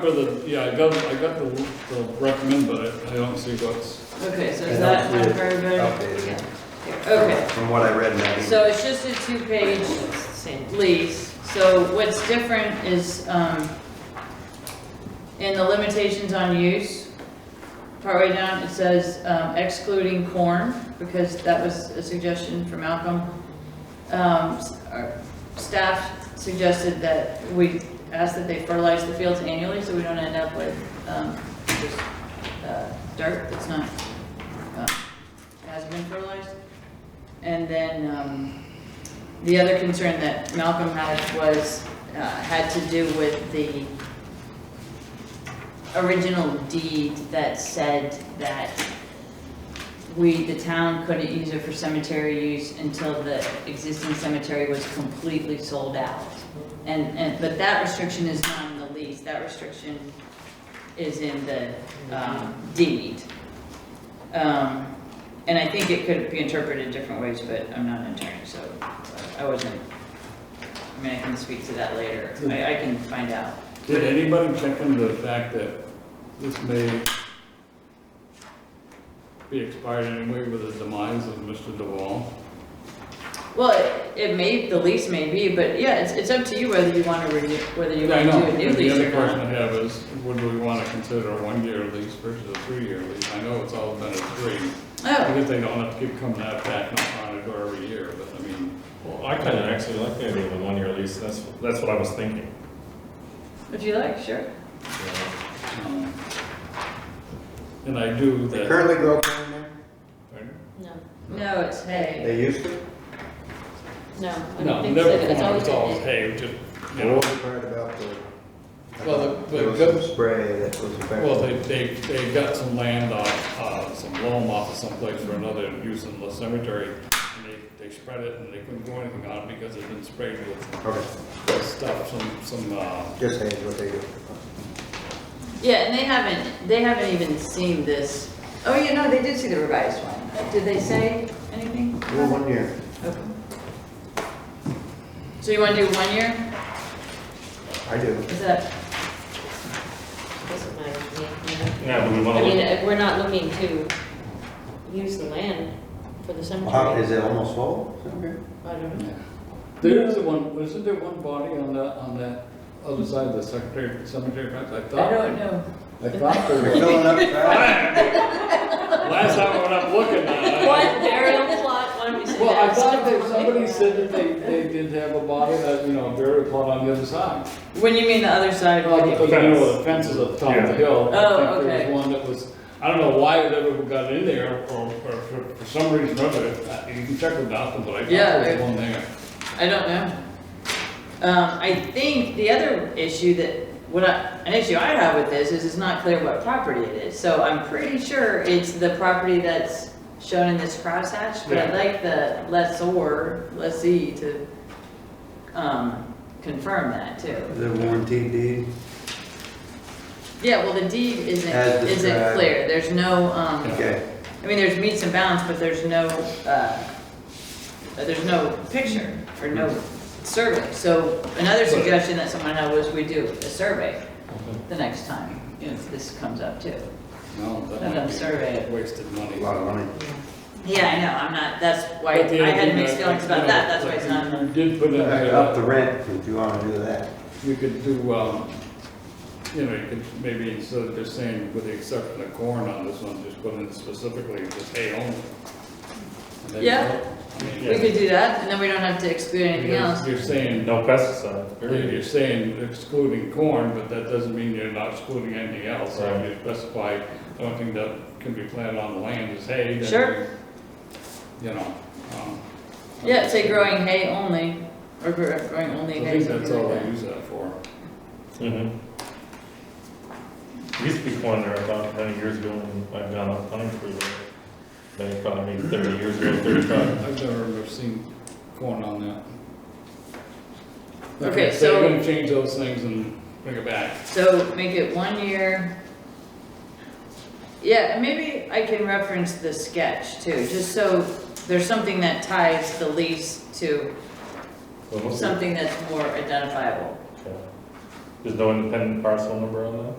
For the, yeah, I got, I got the, the recommend, but I I don't see what's, Okay, so I is that don't see it unfair better? Outdated. Okay, From what I read, Maggie. so it's just a two-page lease. So what's different is, um, in the limitations on use, partway down, it says um, excluding corn, because that was a suggestion from Malcolm. Um, s- our Staff suggested that we ask that they fertilize the fields annually, so we don't end up with um, just uh, dirt that's not, uh, has been fertilized. And then um, the other concern that Malcolm had was, uh, had to do with the original deed that said that we, the town, couldn't use it for cemetery use until the existing cemetery was completely sold out. And, and, but that restriction is not in the lease, that restriction is in the um, deed. Um, And I think it could be interpreted different ways, but I'm not an attorney, so uh, I wasn't, I mean, I can speak to that later, I, I can find out. did anybody check into the fact that this may be expired anyway with the demise of Mr. DeWall? Well, it- it may, the lease may be, but yeah, it's, it's up to you whether you want to renew, whether you Yeah, I want know. to do a new And The lease other or question I not. have is, would we want to consider a one-year lease versus a three-year lease? I know it's all been a three, Oh, because they don't have to keep coming out back on it every year, but I mean, Well, I kind of actually like the idea of a one-year lease, that's, that's what I was thinking. if you like, sure. you know. um, and I do They that, currently grow corn there? No, No, it's hay. They used to? no, I no, don't think so, never, it's corn, always it's always been, hay, just, you know. What was the part about the? Well, the- the There was good- some spray that was effective. Well, they, they, they got some land off, uh, some loam off of someplace for another use in the cemetery, and they, they spread it, and they couldn't do anything on it because it had been sprayed with Okay, with stuff, some, some, uh, just saying what they do. Yeah, and they haven't, they haven't even seen this. Oh, you know, they did see the revised one. Did they say anything? Well, one year. Okay. So you want to do one year? I do. Is that, this is my, yeah, Yeah, but we no. I want mean, to, if we're not looking to use the land for the How, cemetery. is it almost full? I don't know. there is one, isn't there one body on that, on that other side of the cemetery, cemetery fence, I I thought, don't know. I thought They're there was. filling up fast. Last time I went up looking, uh, I, One burial plot, why don't we say that? well, I thought that somebody said that they, they did have a body that, you know, buried upon on the other side. When you mean the other side, Well, what Oh, the do you mean? fence, the fences at the top of the hill. I Oh, think there okay. was One that was, I don't know why it ever got in there, or, or for, for some reason or other, uh, you can check with Malcolm, but I thought Yeah, there was I- one there. I don't know. Um, I think the other issue that, what I, an issue I have with this is it's not clear what property it is. So I'm pretty sure it's the property that's shown in this crosshatch, but Yeah. I'd like the lessor, lessee to, um, confirm that too. The warranty deed, Yeah, well, the deed isn't, As isn't described. clear. There's no, um, okay. I mean, there's meets and bounds, but there's no, uh, there's no picture or no survey. So another suggestion that someone had was we do a survey the next time, if this comes up too. No, that And might I'm be surveying. Wasted A money. lot of money. Yeah, I know, I'm not, that's why, But the I other had thing mixed that- feelings you about know, that, that's why it's not. You did put in Uh, Up the there, rent, if you wanna do that. you could do, um, you know, you could maybe, instead of just saying, with the exception of corn on this one, just put in specifically, just hay only. And then Yeah. I mean, We could do that, and then we don't have to exclude anything you're- else. You're saying, no pesticide, You're period. you're saying excluding corn, but that doesn't mean you're not excluding anything else. So if you specify, the only thing that can be planted on the land is hay. then Sure. you- You know, um. Yeah, say growing hay only, or gr- growing I only hay. think that's something like all that. they use that for. Mhm. There used to be corn there about many years ago when I gone up hunting for it. They probably made thirty years ago, thirty-five. I've never ever seen corn on that. Okay, So so- you're gonna change those things and bring it back. So make it one year. Yeah, and maybe I can reference the sketch too, just so there's something that ties the lease to Well, mostly- something that's more identifiable. Okay. There's no independent parcel number on that?